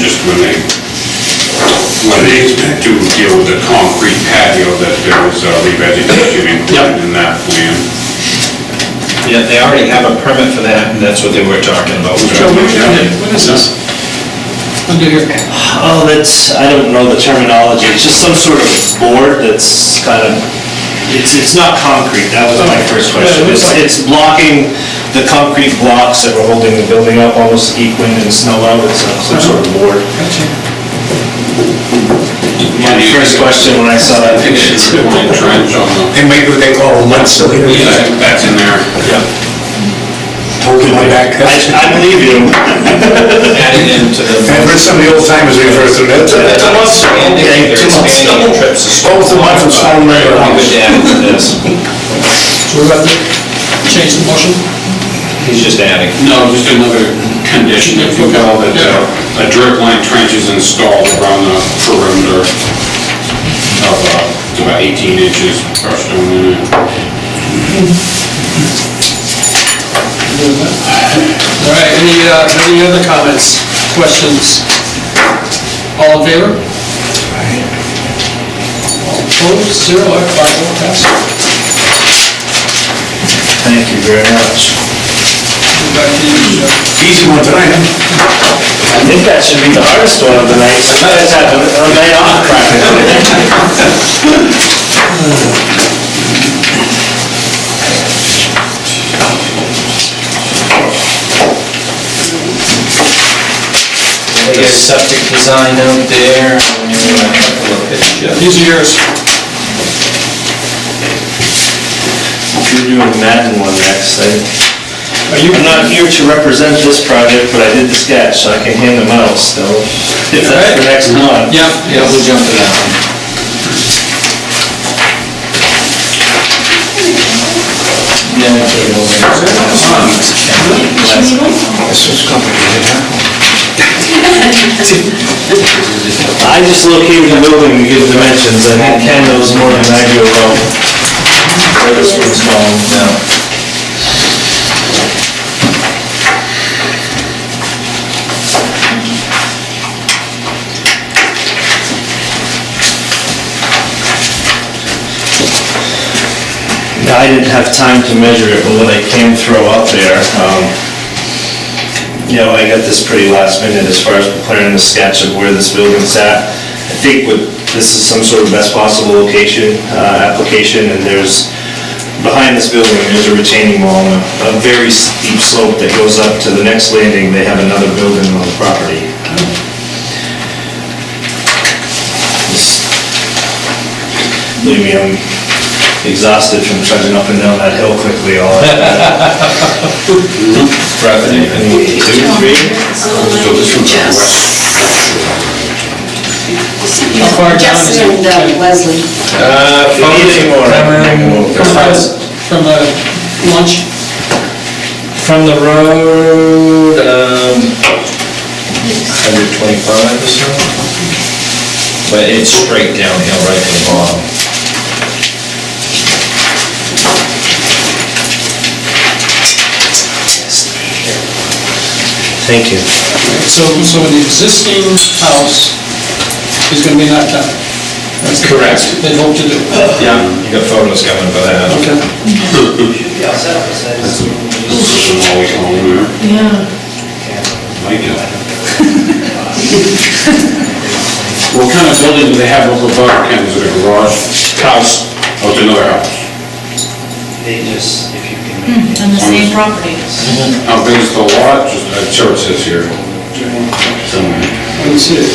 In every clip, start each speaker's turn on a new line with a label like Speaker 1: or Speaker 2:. Speaker 1: just when they, when they do deal with the concrete patio, that there was uh, revegetation included
Speaker 2: Yep.
Speaker 1: in that plan.
Speaker 2: Yeah, they already have a permit for that, and that's what they were talking about.
Speaker 1: Joe, what is that?
Speaker 2: What is this?
Speaker 3: Under your,
Speaker 4: Oh, that's, I don't know the terminology, it's just some sort of board that's kind of, it's, it's not concrete, that was my first question. It's, it's blocking the concrete blocks that were holding the building up, almost like wind and snow out, it's uh, some sort of board. My first question when I saw that picture.
Speaker 1: Like trench on the,
Speaker 5: They make what they call a mud cylinder,
Speaker 1: yeah, that's in there.
Speaker 5: hold it like that.
Speaker 4: I, I believe you.
Speaker 2: Adding into the.
Speaker 5: I've heard some of the old timers refer to it, that's a mud cylinder.
Speaker 2: Expanding,
Speaker 5: Okay,
Speaker 2: they're
Speaker 5: two mud
Speaker 2: expanding the
Speaker 5: cylinder.
Speaker 2: trips. to
Speaker 5: Both the ones from Stone River.
Speaker 2: Very good to add into this.
Speaker 5: So what about the-
Speaker 3: change the motion?
Speaker 2: He's just adding.
Speaker 1: No, just another condition, if you will, that uh, a drip line trench is installed around the perimeter of uh, about 18 inches crushed stone in it.
Speaker 3: All right, any, uh, any other comments, questions? All in favor? All opposed, zero, all right, five, all passed.
Speaker 4: Thank you very much.
Speaker 3: Go back to you, Joe.
Speaker 5: Easy one tonight, huh?
Speaker 4: I think that should be the hardest one of the night, I just had a a night off practically.
Speaker 2: They got septic design out there, and you want to have a look at it.
Speaker 3: These are yours.
Speaker 4: You're doing the Madden one next, I,
Speaker 3: Are you,
Speaker 4: I'm not here to represent this project, but I did the sketch, so I can hand them out still, if that's the next one.
Speaker 3: yeah, yeah, we'll jump to that one.
Speaker 2: Yeah, okay, well, there's-
Speaker 4: I just located the building to give dimensions, I think Ken knows more than I do about where this one's going now. I didn't have time to measure it, but what I can throw up there, um, you know, I got this pretty last minute as far as preparing the sketch of where this building's at. I think what, this is some sort of best possible location, uh, application, and there's, behind this building, there's a retaining wall, and a a very steep slope that goes up to the next landing, they have another building on the property. Just- Believe me, I'm exhausted from trudging up and down that hill quickly all afternoon. Two, three?
Speaker 1: So this one's on the
Speaker 6: Jess.
Speaker 1: west.
Speaker 3: How far down is it?
Speaker 6: Jess and uh, Leslie.
Speaker 2: Uh,
Speaker 4: If you need any more, I can go over.
Speaker 3: From the, from uh, the lunch?
Speaker 2: From the road, um, 125 or so. But it's straight downhill right to the bottom.
Speaker 4: Thank you.
Speaker 3: So, so the existing house is gonna be knocked down? That's the-
Speaker 2: Correct.
Speaker 3: They hope to do.
Speaker 2: Yeah. You got photos coming for that.
Speaker 3: Okay.
Speaker 1: This is always on there. Like it. What kind of building do they have over above, Ken, is it a garage? House. Oh, it's another house.
Speaker 4: They just, if you can.
Speaker 7: Hmm, On the same property.
Speaker 1: How big is the lot? Just, uh, church is here. Somewhere.
Speaker 3: Let me see it.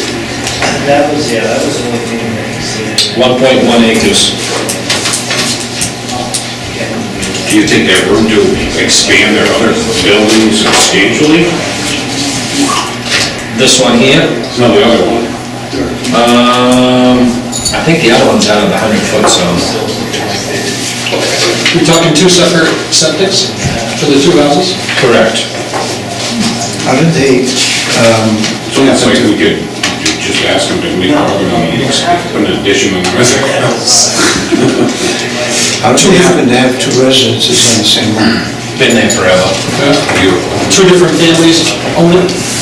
Speaker 4: That was, yeah, that was the only thing I could see.
Speaker 2: 1.1 acres.
Speaker 1: Do you think they have room to expand their other buildings substantially?
Speaker 2: This one here,
Speaker 1: No, the other one.
Speaker 2: um, I think the other one's out of the 100-foot zone.
Speaker 3: You're talking two separate septics for the two houses?
Speaker 2: Correct.
Speaker 8: How did they, um,
Speaker 1: So it's like we could ju- just ask them to make an addition on the rest of the house.
Speaker 8: how did they happen to have two residences on the same lot?
Speaker 2: Been there forever.
Speaker 1: Beautiful.
Speaker 3: Two different families own it?